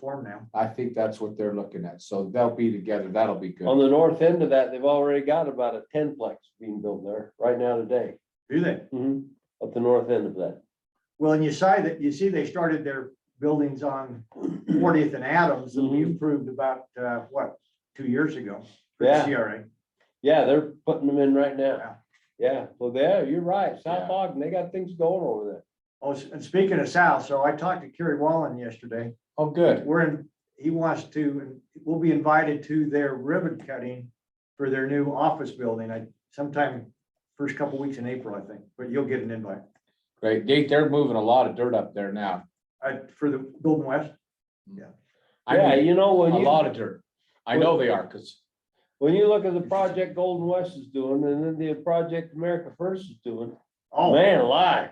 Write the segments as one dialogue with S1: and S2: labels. S1: form now.
S2: I think that's what they're looking at. So they'll be together. That'll be good.
S3: On the north end of that, they've already got about a tenplex being built there right now today.
S1: Do they?
S2: Mm-hmm.
S3: Mhm, Up the north end of that.
S1: Well, and you saw that, you see they started their buildings on Fortieth and Adams that we
S3: Mhm.
S1: approved about, uh, what, two years ago? for the
S3: Yeah.
S1: CRA.
S3: Yeah, they're putting them in right
S1: Yeah.
S3: now. Yeah, well, there, you're right.
S2: Yeah.
S3: South Ogden, they got things going over there.
S1: Oh, s- and speaking of South, so I talked to Kerry Wallen yesterday.
S2: Oh, good.
S1: We're in, he wants to, and we'll be invited to their ribbon cutting for their new office building. I sometime first couple weeks in April, I think, but you'll get an invite.
S2: Great. They, they're moving a lot of dirt up there now.
S1: Uh, for the Golden West,
S2: I
S3: Yeah,
S2: mean,
S3: you know,
S2: a
S3: when
S2: lot
S3: you,
S2: of dirt. I know they are, cause
S3: when you look at the project Golden West is doing and then the project America First is doing,
S1: oh,
S3: man alive.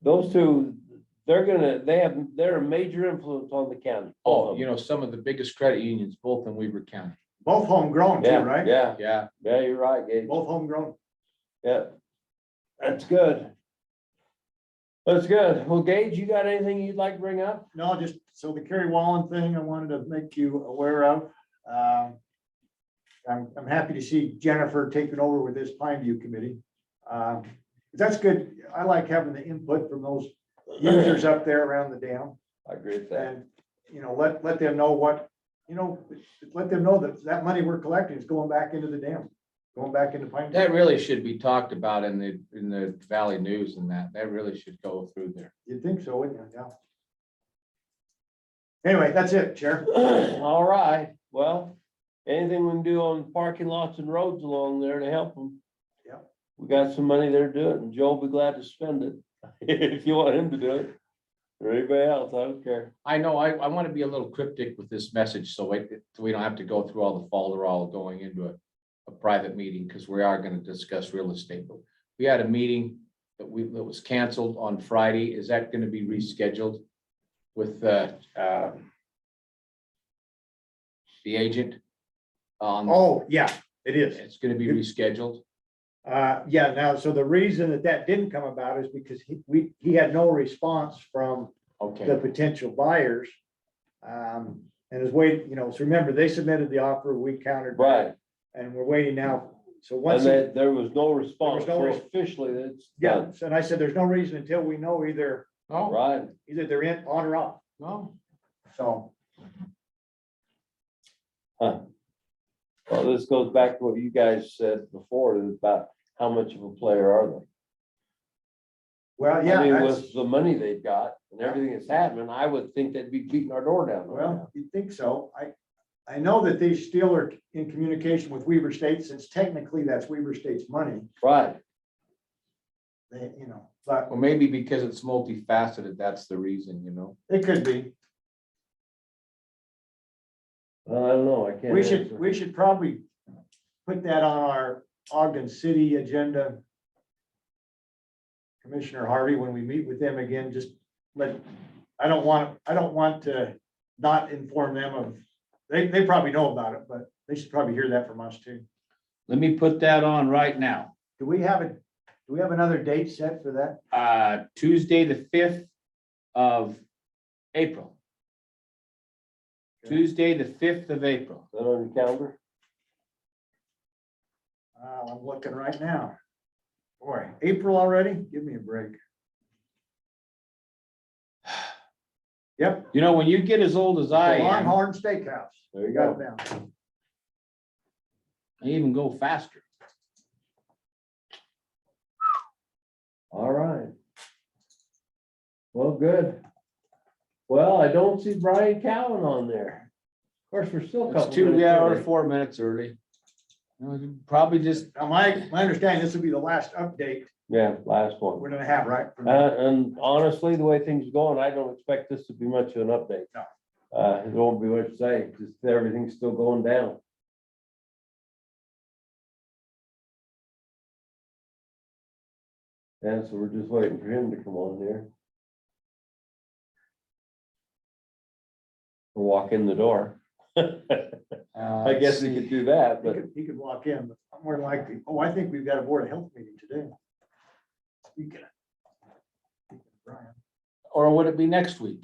S3: Those two, they're gonna, they have, they're a major influence on the county. both
S2: Oh,
S3: of
S2: you
S3: them.
S2: know, some of the biggest credit unions, both in Weaver County.
S1: both homegrown too,
S3: Yeah,
S1: right?
S3: Yeah,
S2: Yeah,
S3: yeah, you're right, Gabe.
S1: Both homegrown.
S3: Yeah, that's good. That's good. Well, Gage, you got anything you'd like to bring up?
S1: No, just, so the Kerry Wallen thing, I wanted to make you aware of. Um, I'm, I'm happy to see Jennifer taking over with this Pine View Committee. Um, That's good. I like having the input from those users up there around the dam.
S3: I agree with that.
S1: And, you know, let, let them know what, you know, let them know that that money we're collecting is going back into the dam, going back into Pine. View.
S2: that really should be talked about in the, in the Valley News and that, that really should go through there.
S1: You'd think so, wouldn't you? Yeah. Anyway, that's it, Chair.
S3: All right, well, anything we can do on parking lots and roads along there to help them?
S1: Yeah.
S3: We got some money there to do it, and Joe'll be glad to spend it, if you want him to do it. Or anybody else, I don't care.
S2: I know, I, I want to be a little cryptic with this message, so we, we don't have to go through all the folderol going into a, a private meeting, because we are gonna discuss real estate. But We had a meeting that we, that was canceled on Friday. Is that gonna be rescheduled with, uh, uh, the agent? On,
S1: Oh, yeah, it is.
S2: it's gonna be rescheduled.
S1: Uh, yeah, now, so the reason that that didn't come about is because he, we, he had no response from the
S2: Okay,
S1: potential buyers. Um, and is wait, you know, so remember, they submitted the offer, we countered. back,
S3: Right,
S1: And we're waiting now, so
S3: and
S1: once, it-
S3: then there was no response,
S1: no
S3: so
S1: res-
S3: officially, it's
S1: yeah,
S3: done,
S1: so and I said, there's no reason until we know either,
S2: oh,
S3: right?
S1: either they're in, on or off,
S2: no,
S1: so.
S3: Well, this goes back to what you guys said before about how much of a player are they?
S1: Well,
S3: I
S1: yeah,
S3: mean,
S1: that's,
S3: with the money they've got and everything that's happening, I would think they'd be beating our door down. right now.
S1: well, you'd think so, I, I know that they still are in communication with Weaver State, since technically that's Weaver State's money,
S3: Right,
S1: they, you know, but
S2: well, maybe because it's multifaceted, that's the reason, you know?
S1: it could be.
S3: Well, I don't know, I can't.
S1: We should,
S3: answer.
S1: we should probably put that on our Ogden City agenda. Commissioner Harvey, when we meet with them again, just let, I don't want, I don't want to not inform them of, they, they probably know about it, but they should probably hear that from us too.
S4: Let me put that on right now.
S1: Do we have a, do we have another date set for that?
S4: Uh, Tuesday, the fifth of April.
S1: Okay.
S4: Tuesday, the fifth of April.
S3: Is That on your calendar?
S1: Uh, I'm looking right now. Boy, April already? Give me a break. Yep,
S4: You know, when you get as old as I am,
S1: Longhorn Steakhouse.
S3: There you
S1: We got it
S3: go.
S1: down.
S4: I even go faster.
S3: All right. Well, good. Well, I don't see Brian Cowan on there. Of course, we're still. a
S2: It's
S3: couple
S2: two
S3: minutes
S2: hours,
S3: early.
S2: four minutes early. You know, Probably just
S1: Now, uh, my, my understanding, this will be the last update
S3: Yeah, last one.
S1: we're gonna have, right? from-
S3: Uh, and honestly, the way things are going, I don't expect this to be much of an update.
S1: No.
S3: Uh, it won't be much to say, just everything's still going down. And so we're just waiting for him to come on here. Walk in the door. I
S2: Uh,
S3: guess we could do that,
S1: He
S3: but
S1: could, he could walk in, but I'm more than likely, oh, I think we've got a board of health meeting today. Speaking of- Brian,
S2: Or would it be next week?